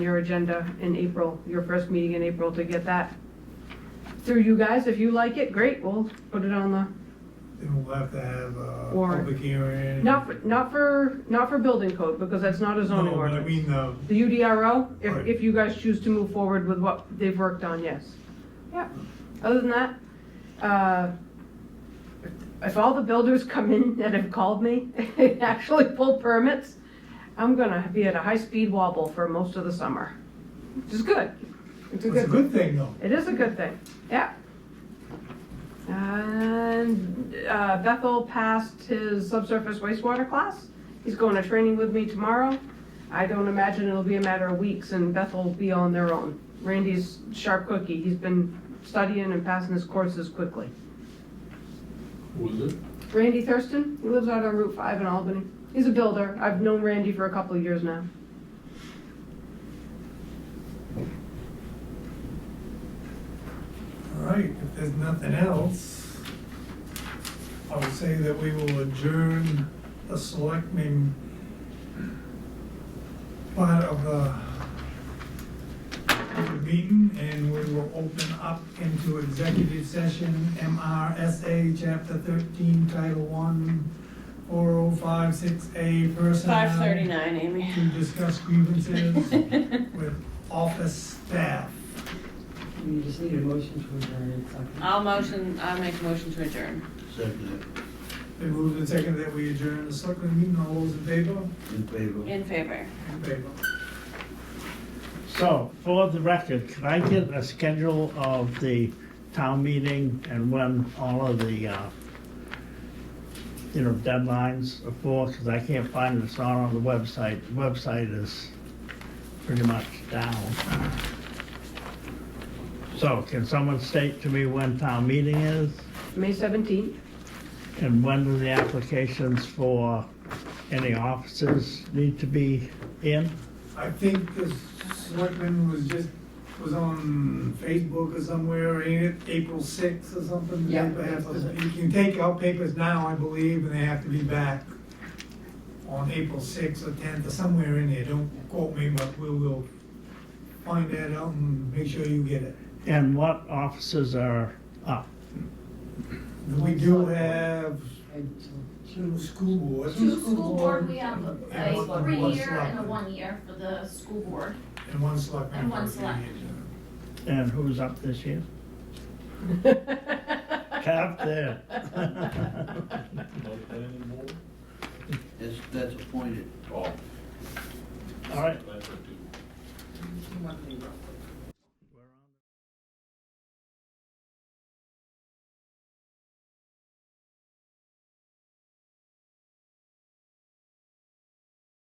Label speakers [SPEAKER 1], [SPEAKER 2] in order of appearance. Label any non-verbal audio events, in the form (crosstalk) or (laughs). [SPEAKER 1] your agenda in April, your first meeting in April to get that through you guys. If you like it, great, we'll put it on the
[SPEAKER 2] Then we'll have to have a
[SPEAKER 1] Warrant.
[SPEAKER 2] public hearing.
[SPEAKER 1] Not, for- not for, not for building code, because that's not a zoning
[SPEAKER 2] No, but I
[SPEAKER 1] ordinance.
[SPEAKER 2] mean, uh,
[SPEAKER 1] The UDRO, if,
[SPEAKER 2] Right.
[SPEAKER 1] if you guys choose to move forward with what they've worked on, yes. Yeah, other than that, uh, if all the builders come in (laughs) that have called me, and actually pull permits, I'm gonna be at a high-speed wobble for most of the summer, which is good. It's a
[SPEAKER 2] it's a
[SPEAKER 1] good,
[SPEAKER 2] good thing though.
[SPEAKER 1] it is a good thing, yeah. And uh, Bethel passed his subsurface wastewater class. He's going to training with me tomorrow. I don't imagine it'll be a matter of weeks and Bethel will be on their own. Randy's sharp cookie. He's been studying and passing his courses quickly.
[SPEAKER 3] Who is it?
[SPEAKER 1] Randy Thurston, he lives out on Route 5 in Albany. He's a builder. I've known Randy for a couple of years now.
[SPEAKER 2] All right, if there's nothing else, I would say that we will adjourn the selectmen part of the meeting, and we will open up into executive session, MRSA, Chapter 13, Title oh 1, 4056A, personnel.
[SPEAKER 4] Five thirty-nine, Amy. (laughs)
[SPEAKER 2] To discuss grievances
[SPEAKER 1] (laughs)
[SPEAKER 2] with office staff.
[SPEAKER 5] You just need a motion to adjourn and second.
[SPEAKER 1] Uh,
[SPEAKER 4] I'll motion, I'll make a motion to adjourn.
[SPEAKER 3] Second,
[SPEAKER 2] They moved and second that we adjourn the selectmen meeting, all those in favor?
[SPEAKER 3] in favor.
[SPEAKER 4] In favor.
[SPEAKER 2] In favor.
[SPEAKER 6] So, for the record, can I get a schedule of the town meeting and when all of the, uh, you know, deadlines are for, because I can't find it, it's not on the website. The website is pretty much down. So, can someone state to me when town meeting is,
[SPEAKER 4] (laughs)
[SPEAKER 1] May 17th,
[SPEAKER 6] and when do the applications for any offices need to be in?
[SPEAKER 2] I think the selectman was just, was on Facebook or somewhere, ain't it, April sixth or something?
[SPEAKER 5] Yeah,
[SPEAKER 2] They have to-
[SPEAKER 5] April 6th.
[SPEAKER 2] You can take out papers now, I believe, and they have to be back on April sixth or tenth or somewhere in there, don't quote me, but we will find that out and make sure you get it.
[SPEAKER 6] And what offices are up?
[SPEAKER 2] We do have
[SPEAKER 5] And so-
[SPEAKER 2] two school boards.
[SPEAKER 7] Two school board, we have
[SPEAKER 2] and
[SPEAKER 7] a
[SPEAKER 2] one- one
[SPEAKER 7] three-year and a
[SPEAKER 2] selectman.
[SPEAKER 7] one-year for the school board.
[SPEAKER 2] And one selectman.
[SPEAKER 7] And one
[SPEAKER 2] for three
[SPEAKER 7] select.
[SPEAKER 2] years.
[SPEAKER 6] And who's up this year? Cap there. (laughs)
[SPEAKER 3] That's, that's appointed.
[SPEAKER 6] All right,